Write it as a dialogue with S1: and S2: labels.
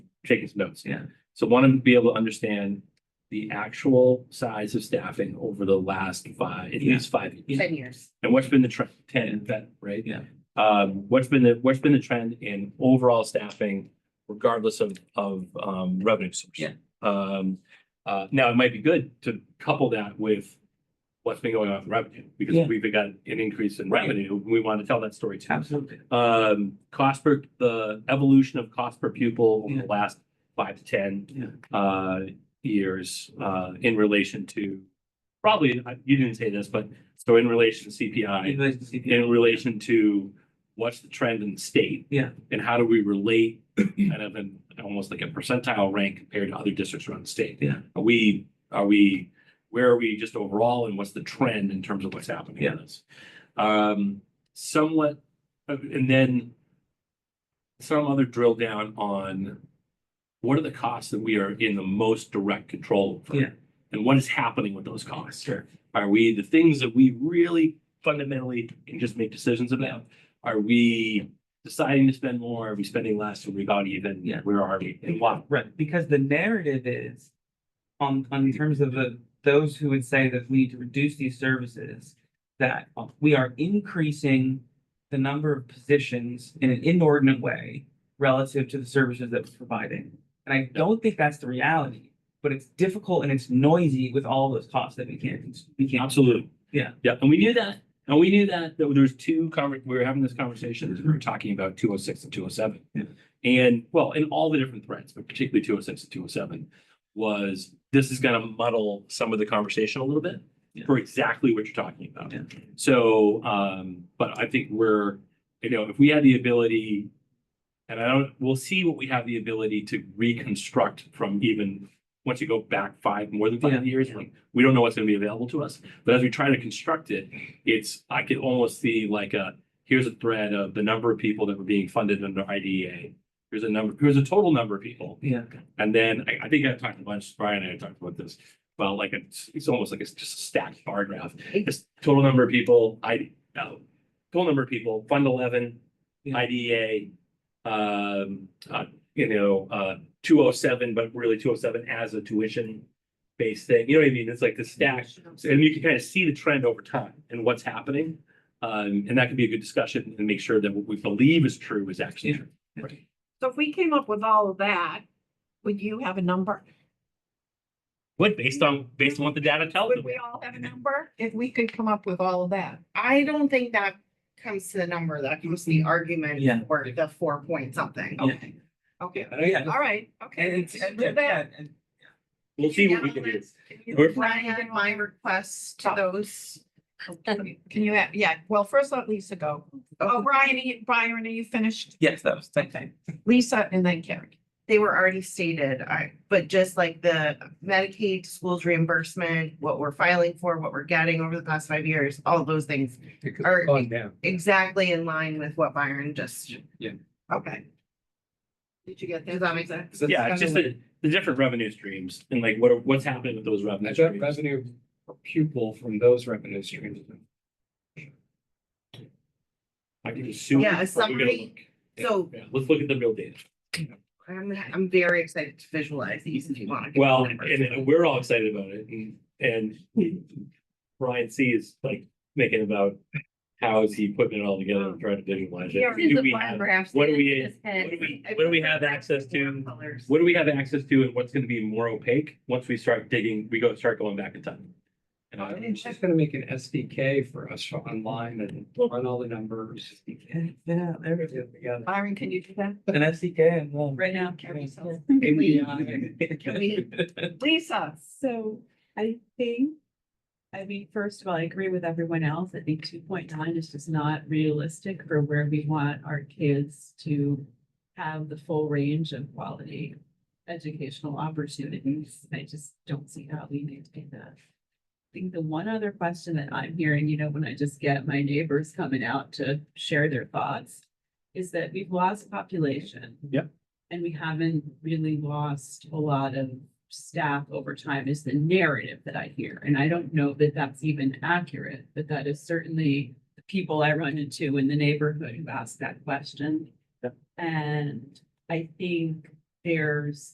S1: taking some notes.
S2: Yeah.
S1: So want to be able to understand the actual size of staffing over the last five, at
S2: Yeah.
S1: least five years.
S3: ten years.
S1: And what's been the trend, ten, that, right?
S2: Yeah.
S1: Um, what's been the, what's been the trend in overall staffing regardless of, of, um, revenue source?
S2: Yeah.
S1: Um, uh, now it might be good to couple that with what's been going on with revenue, because
S2: Yeah.
S1: we've got an increase in
S2: Right.
S1: revenue. We want to tell that story too.
S2: Absolutely.
S1: Um, cost per, the evolution of cost per pupil over
S2: Yeah.
S1: the last five to ten
S2: Yeah.
S1: uh, years, uh, in relation to probably, I- you didn't say this, but so in relation to CPI, in relation to what's the trend in the state?
S2: Yeah.
S1: And how do we relate kind of in almost like a percentile rank compared to other districts around the state?
S2: Yeah.
S1: Are we, are we, where are we just overall and what's the trend in terms of what's happening
S2: Yeah.
S1: in this? Um, somewhat, uh, and then some other drill down on what are the costs that we are in the most direct control over?
S2: Yeah.
S1: And what is happening with those costs? Are we the things that we really fundamentally can just make decisions about? Are we deciding to spend more? Are we spending less? Are we about even?
S2: Yeah.
S1: Where are we and why?
S2: Right, because the narrative is on, on terms of the, those who would say that we need to reduce these services, that we are increasing the number of positions in an inordinate way relative to the services that we're providing. And I don't think that's the reality, but it's difficult and it's noisy with all those costs that we can't, we can't.
S1: Absolutely.
S2: Yeah.
S1: Yeah, and we knew that. And we knew that, that there was two conver, we were having this conversation, we were talking about two oh six and two oh seven.
S2: Yeah.
S1: And, well, and all the different threats, but particularly two oh six and two oh seven, was this is gonna muddle some of the conversation a little bit
S2: Yeah.
S1: for exactly what you're talking about.
S2: Yeah.
S1: So, um, but I think we're, you know, if we had the ability, and I don't, we'll see what we have the ability to reconstruct from even, once you go back five, more than
S2: Yeah.
S1: five years, like, we don't know what's gonna be available to us. But as we try to construct it, it's, I could almost see like a, here's a thread of the number of people that were being funded under IDEA. Here's a number, here's a total number of people.
S2: Yeah,
S1: And then I, I think I talked a bunch, Brian and I talked about this, well, like it's, it's almost like it's just a stacked bar graph. It's total number of people, I, uh, total number of people, fund eleven,
S2: Yeah.
S1: IDA. Um, uh, you know, uh, two oh seven, but really two oh seven as a tuition based thing, you know what I mean? It's like the stack. So, And you can kind of see the trend over time and what's happening. Um, and that could be a good discussion and make sure that what we believe is true is actually
S2: Yeah.
S1: true.
S3: So if we came up with all of that, would you have a number?
S1: What, based on, based on what the data tells
S3: Would we all have a number if we could come up with all of that?
S4: I don't think that comes to the number, that comes to the
S2: Yeah.
S4: argument or the four point something.
S2: Yeah.
S4: Okay. Okay.
S2: Oh, yeah.
S3: All right, okay.
S2: And,
S3: let's
S2: and,
S3: do that.
S2: and,
S1: We'll see what we can do. We're-
S4: Brian, my request
S3: Oh.
S4: to those.
S3: Can you, have- yeah, well, first let Lisa go. Oh, Brian, are you- Brian, are you finished?
S2: yes, that was, thank you.
S3: Okay, Lisa and then Carrie.
S4: They were already stated, I, but just like the Medicaid to schools reimbursement, what we're filing for, what we're getting over the past five years, all those things are exactly in line with what Byron just.
S2: Yeah.
S4: Okay.
S3: Did you get
S4: Does
S3: that?
S4: that make sense?
S1: Yeah, it's just the, the different revenue streams and like what are, what's happening with those revenue
S5: I got
S1: streams.
S5: revenue per pupil from those revenue streams.
S1: I can assume.
S4: Yeah, a
S1: we're gonna
S4: summary.
S1: look.
S4: So
S1: Yeah, let's look at the real data.
S4: I'm, I'm very excited to visualize these if you want. to.
S1: Well, and we're all excited about it and, and Brian C is like thinking about how is he putting it all together and trying to visualize it.
S6: This is
S1: Do
S6: the
S1: we
S6: bar
S1: have-
S6: graphs
S1: what
S6: that
S1: do we-
S6: just had.
S1: what do we- what do we have access to?
S4: Colors.
S1: What do we have access to and what's gonna be more opaque once we start digging, we go, start going back in time? And I,
S5: It's just gonna make an SDK for us online and run all the numbers.
S2: Yeah, there we go.
S5: everything together.
S3: Byron, can you do that?
S2: An SDK and one.
S6: Right now.
S5: API.
S3: Lisa,
S6: So I think, I mean, first of all, I agree with everyone else. I think two point nine is just not realistic for where we want our kids to have the full range of quality educational opportunities. I just don't see how we maintain that. I think the one other question that I'm hearing, you know, when I just get my neighbors coming out to share their thoughts, is that we've lost population.
S1: Yep.
S6: And we haven't really lost a lot of staff over time is the narrative that I hear. And I don't know that that's even accurate, but that is certainly the people I run into in the neighborhood who ask that question.
S1: Yep.
S6: And I think there's